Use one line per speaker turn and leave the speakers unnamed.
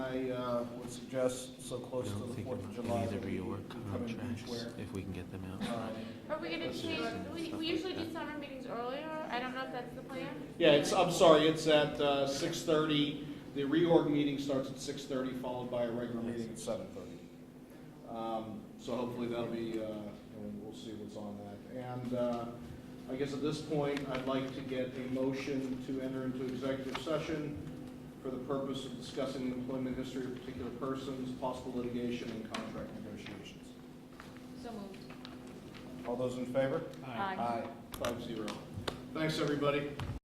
uh, would suggest so close to the Fourth of July. that we can come in beachwear.
if we can get them out.
Uh,
Are we gonna change, we, we usually do summer meetings earlier, I don't know if that's the plan.
Yeah, it's, I'm sorry, it's at uh, 6:30. The reorg meeting starts at 6:30, followed by a regular
We're meeting
meeting.
at seven thirty.
Um, So hopefully that'll be, uh, and we'll see what's on that. And uh, I guess at this point, I'd like to get a motion to enter into executive session for the purpose of discussing the employment history of particular persons, possible litigation, and contract negotiations.
So moved.
All those in favor?
Aye.
Five zero. Thanks, everybody.